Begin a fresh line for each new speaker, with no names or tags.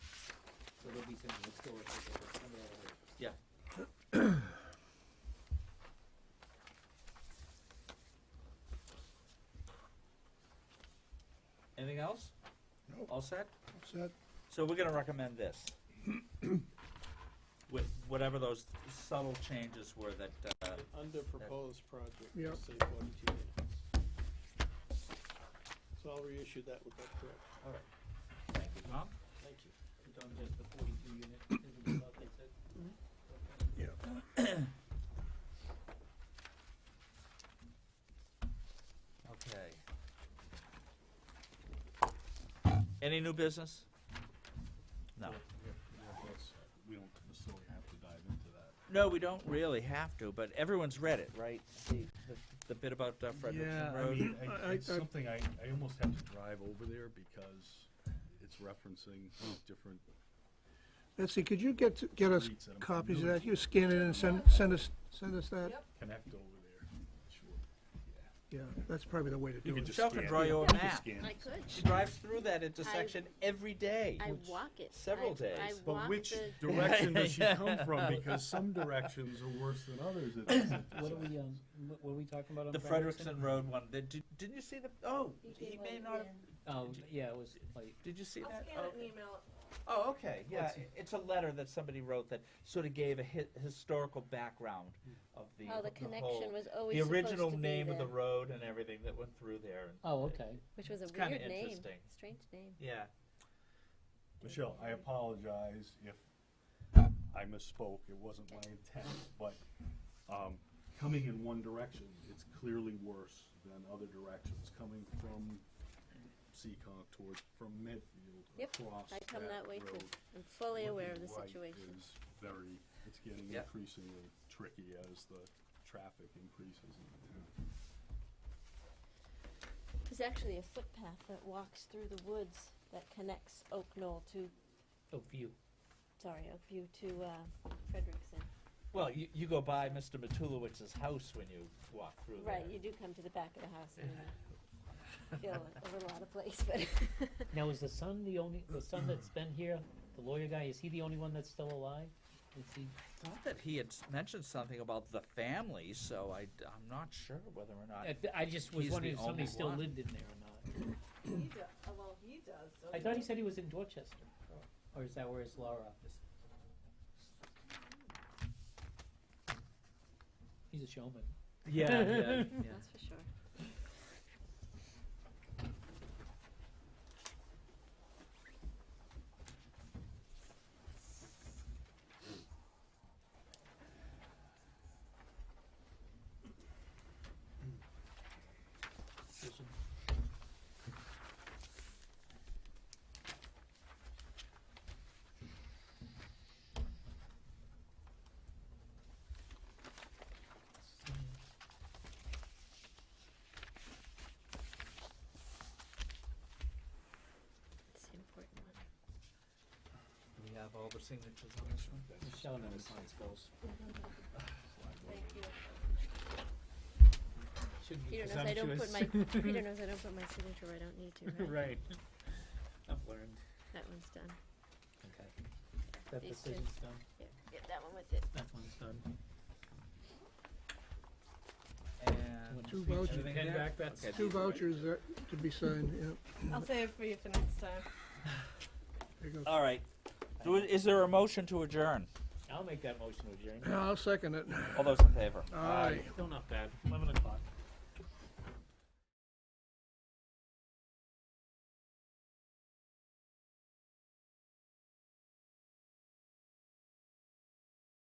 So there'll be some historical, available.
Yeah. Anything else?
Nope.
All set?
Set,
So we're gonna recommend this. With whatever those subtle changes were that, uh,
Under proposed project,
Yep.
just say forty-two minutes. So I'll reissue that with that correct.
all right. Thank you, Tom.
Thank you.
in terms of the forty-two unit, is what they said. Okay.
yeah.
Okay. Any new business? No.
We don't necessarily have to dive into that.
No, we don't really have to, but everyone's read it, right? The, the- the bit about uh, Frederickson
I mean,
Road?
Um, I-
I-
It's
I-
something I, I almost have to drive over there because it's referencing different,
Nancy, could you get, get us
Reads that I'm
copies of
familiar
that? You scan it and send, send us, send us that?
Yep.
connect over there, sure.
Yeah, that's probably the way to
You
do
can
it.
just
Shell can
scan.
draw your
You can
map.
scan.
I could.
She drives through that
I-
intersection every day.
I walk it.
several
I- I
days. But
walk
But which
the-
direction does she come from? Because some directions are worse than others. at this
What are we,
intersection.
um, what what are we talking about on
The Frederickson Road one, did, did- didn't you see the, oh,
You
he
can
may
let
not,
it
have-
in.
Oh, yeah, it was like,
did you see
I'll
that?
scan
Oh,
it and email it.
Oh, okay, yeah,
Let's-
it's a letter that somebody wrote that sort of gave a hi- historical background of the,
How Oh, the
whole-
connection was always
The
supposed to be
original name of the
there,
road and everything that went through there, and,
oh, okay.
Which was a
It's kinda
weird name,
interesting.
strange name.
yeah.
Michelle, I apologize if I misspoke, it wasn't my intent, but, um, coming in one direction, it's clearly worse than other directions, coming from Seccong towards, from Medfield
Yep,
across
I come that way too.
road.
I'm fully aware of the
Looking right
situation.
is Very, it's getting
Yep.
increasingly tricky as the traffic increases in the town.
There's actually a footpath that walks through the woods that connects Oak Knoll to,
Oh, view.
sorry, Oakview to, uh, Frederickson.
Well, you, you go by Mr. Matulowicz's house when you walk through there.
Right, you do come to the back of the house and you feel a little out of place, but
Now, is the son the only, the son that's been here, the lawyer guy, is he the only one that's still alive? Is he,
I thought that he had s- mentioned something about the family, so I, am not sure whether or not,
I, I just was
He's
wondering
the
if somebody
only
still
one.
lived in there or not.
He do, oh, well, he does.
I thought he said he was in Dorchester, or is that where his law office? is? He's a showman.
yeah, yeah, yeah.
that's for sure. It's an important one.
We have all the signatures on this one?
Michelle knows how it's supposed.
Thank you.
Shouldn't be
Peter knows I don't put my,
presumptuous.
Peter knows I don't put my signature where I don't need to, right?
Right. I've learned.
That one's done.
Okay. That
These two.
decision's done.
Yeah, yeah, that one with it.
That one's done.
And.
Two vouchers.
everything
Pen
there?
back, that's-
Okay,
Two
these are right.
vouchers that, to be signed, yeah.
I'll save it for you for next time.
There you go.
All right. Do it- Is there a motion to adjourn?
I'll make that motion to adjourn.
I'll second it.
All those in favor?
Aye.
Still not bad, eleven o'clock.